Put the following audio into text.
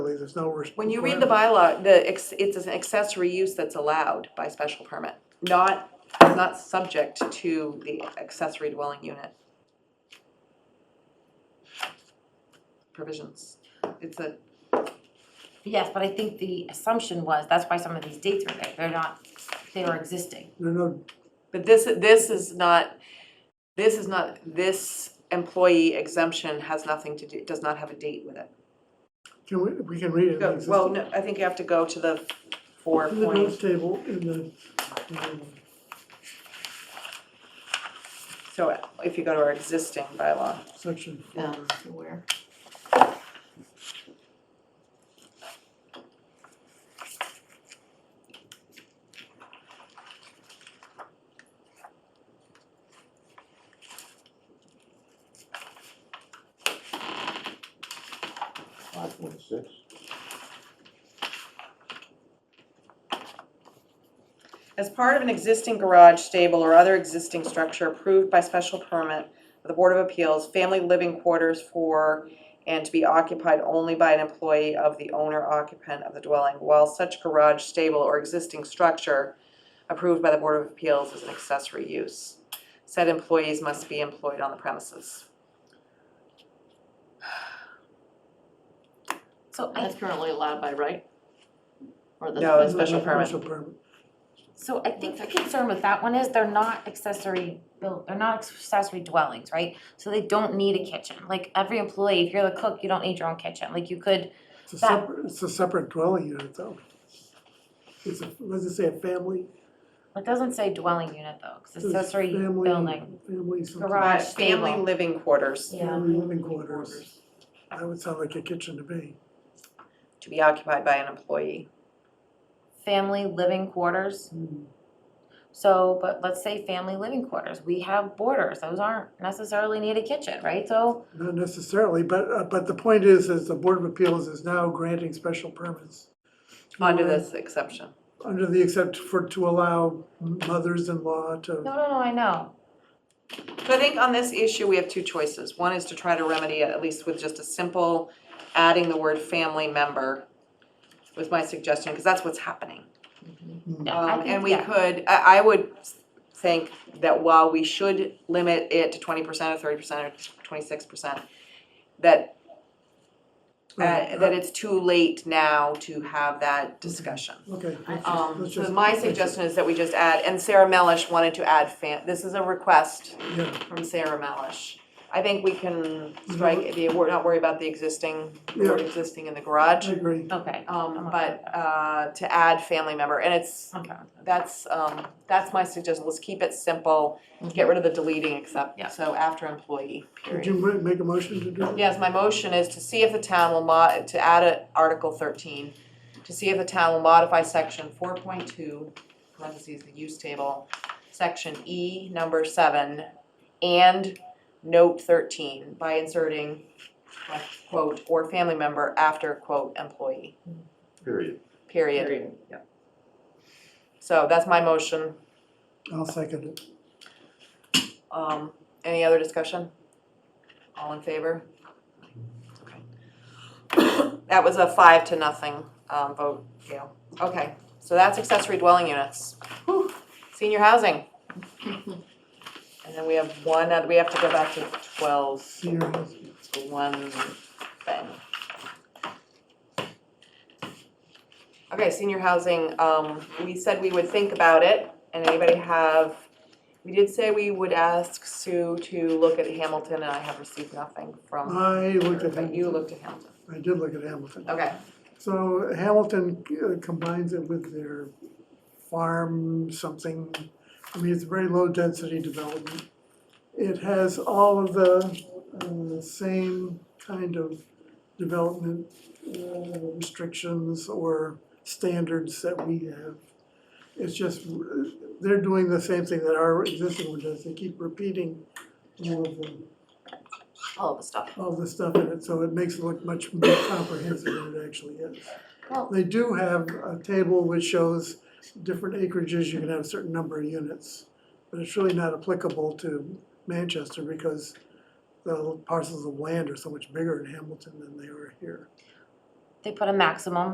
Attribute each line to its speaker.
Speaker 1: basically, there's no. res-
Speaker 2: When you read the bylaw, the, ex- it's an accessory use that's allowed by special permit, not, not subject to the accessory dwelling unit. Provisions, it's a,
Speaker 3: Yes, but I think the assumption was, that's why some of these dates were there, they're not, they were existing.
Speaker 1: There are no,
Speaker 2: but this, this is not, this is not, this employee exemption has nothing to do, does not have a date with it.
Speaker 1: can we, we can read it. in
Speaker 2: Go-
Speaker 1: the
Speaker 2: Well,
Speaker 1: existing-
Speaker 2: no, I think you have to go to the four
Speaker 1: In the notes
Speaker 2: point,
Speaker 1: table, in the, in
Speaker 2: so if you go to our existing bylaw.
Speaker 1: the section. four.
Speaker 2: Uh,
Speaker 4: Um, where?
Speaker 5: Five point six.
Speaker 2: As part of an existing garage, stable, or other existing structure approved by special permit of the Board of Appeals, family living quarters for and to be occupied only by an employee of the owner occupant of the dwelling, while such garage, stable, or existing structure approved by the Board of Appeals is an accessory use. Said employees must be employed on the premises.
Speaker 3: So I,
Speaker 4: That's currently allowed by right? Or that's
Speaker 2: No,
Speaker 4: by
Speaker 2: it's
Speaker 4: special
Speaker 2: not. permit.
Speaker 1: Special permit.
Speaker 3: so I think the concern with that one is they're not accessory built, they're not accessory dwellings, right? So they don't need a kitchen, like every employee, if you're the cook, you don't need your own kitchen, like you could,
Speaker 1: It's a
Speaker 3: That-
Speaker 1: separate, it's a separate dwelling unit though. It's a, what does it say, a family?
Speaker 3: it doesn't say dwelling unit though, cause
Speaker 1: It's
Speaker 3: accessory
Speaker 1: family-
Speaker 3: building.
Speaker 1: Family something.
Speaker 3: Garage,
Speaker 2: But Family
Speaker 3: stable.
Speaker 2: living quarters
Speaker 3: Yeah.
Speaker 1: Family living quarters. That would sound like a kitchen to me.
Speaker 2: to be occupied by an employee.
Speaker 3: Family living quarters,
Speaker 1: Mm-hmm.
Speaker 3: so, but let's say family living quarters, we have borders, those aren't necessarily need a kitchen, right? So,
Speaker 1: Not necessarily, but, uh, but the point is, is the Board of Appeals is now granting special permits.
Speaker 2: Under
Speaker 1: for-
Speaker 2: this exception.
Speaker 1: Under the, except for, to allow mothers-in-law
Speaker 3: no,
Speaker 2: Uh,
Speaker 1: to,
Speaker 3: no, no, I know,
Speaker 2: So I think on this issue, we have two choices. One is to try to remedy it, at least with just a simple adding the word family member was my suggestion, because that's what's happening.
Speaker 3: no, I
Speaker 2: Um,
Speaker 3: think,
Speaker 2: and we
Speaker 3: yeah.
Speaker 2: could, I, I would think that while we should limit it to twenty percent or thirty percent or twenty-six percent, that,
Speaker 1: Right.
Speaker 2: that, that it's too late now to have that discussion.
Speaker 1: okay. let's just-
Speaker 2: Um,
Speaker 1: let's
Speaker 2: so
Speaker 1: just-
Speaker 2: my
Speaker 1: let's just-
Speaker 2: suggestion is that we just add, and Sarah Melish wanted to add fam, this is a request
Speaker 1: Yeah,
Speaker 2: from Sarah Malish. I think we can strike the, wor- not worry about the existing, the word
Speaker 1: Yeah.
Speaker 2: existing in the
Speaker 1: I
Speaker 2: garage.
Speaker 1: agree.
Speaker 3: Okay,
Speaker 2: Um,
Speaker 3: I'm okay
Speaker 2: but,
Speaker 3: with that.
Speaker 2: uh, to add family member, and it's,
Speaker 3: okay.
Speaker 2: that's, um, that's my suggestion, let's keep it simple. Get rid of the deleting
Speaker 3: Mm-hmm. Yeah.
Speaker 2: except, so after employee,
Speaker 1: Did
Speaker 2: period.
Speaker 1: you ma- make a motion to do that?
Speaker 2: Yes, my motion is to see if the town will mod, to add a Article thirteen, to see if the town will modify section four point two, parentheses, the use table, section E, number seven, and note thirteen by inserting like, quote, or family member after quote employee,
Speaker 5: Period.
Speaker 2: period.
Speaker 4: Period. Yeah.
Speaker 2: So that's my motion.
Speaker 1: I'll second it.
Speaker 2: Um, any other discussion? All in favor? Okay. That was a five to nothing, um, vote, Gail. Okay, so that's accessory dwelling units. Whew, Senior housing. And then we have one, other- we have to go back to twelve,
Speaker 1: Senior housing.
Speaker 2: it's the one thing. Okay, senior housing, um, we said we would think about it, and anybody have, we did say we would ask Sue to look at Hamilton, and I have received nothing from,
Speaker 1: I looked at
Speaker 2: but you
Speaker 1: Hamilton.
Speaker 2: looked at Hamilton,
Speaker 1: I did look at Hamilton.
Speaker 2: okay.
Speaker 1: So Hamilton uh, combines it with their farm something. I mean, it's a very low density development. It has all of the uh, same kind of development uh, restrictions or standards that we have. It's just, uh, they're doing the same thing that our existing one does. They keep repeating all of the
Speaker 2: All of the stuff.
Speaker 1: all the stuff in it, so it makes it look much more comprehensive than it actually is.
Speaker 3: Well-
Speaker 1: They do have a table which shows different acreages, you can have a certain number of units, but it's really not applicable to Manchester because the parcels of land are so much bigger in Hamilton than they are here.
Speaker 3: they put a maximum